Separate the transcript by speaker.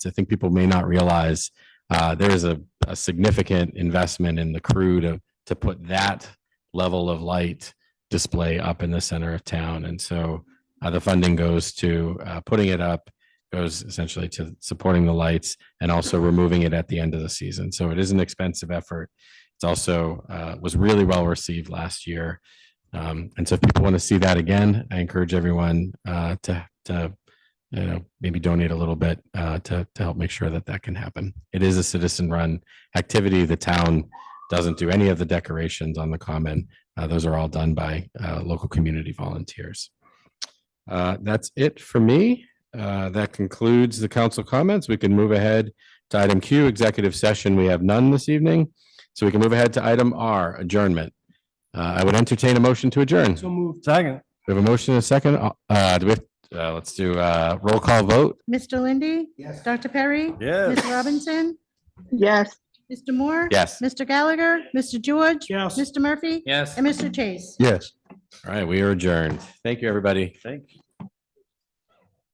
Speaker 1: I think people may not realize uh, there is a, a significant investment in the crew to to put that level of light display up in the center of town, and so uh, the funding goes to uh, putting it up, goes essentially to supporting the lights and also removing it at the end of the season. So it is an expensive effort. It's also uh, was really well received last year. Um, and so if people want to see that again, I encourage everyone uh, to, to, you know, maybe donate a little bit uh, to, to help make sure that that can happen. It is a citizen run activity. The town doesn't do any of the decorations on the common. Uh, those are all done by uh, local community volunteers. Uh, that's it for me. Uh, that concludes the council comments. We can move ahead to item Q, executive session. We have none this evening. So we can move ahead to item R, adjournment. Uh, I would entertain a motion to adjourn.
Speaker 2: So moved. Second.
Speaker 1: We have a motion and a second. Uh, Uh, do we, have- uh, let's do, uh, roll call vote.
Speaker 3: Mr. Lindy?
Speaker 2: Yes.
Speaker 3: Dr. Perry?
Speaker 2: Yes.
Speaker 3: Ms. Robinson?
Speaker 4: Yes.
Speaker 3: Mr. Moore?
Speaker 1: Yes.
Speaker 3: Mr. Gallagher? Mr. George?
Speaker 2: Yes.
Speaker 3: Mr. Murphy?
Speaker 2: Yes.
Speaker 3: And Mr. Chase?
Speaker 2: Yes.
Speaker 1: All right, we are adjourned. Thank you, everybody.
Speaker 2: Thank you.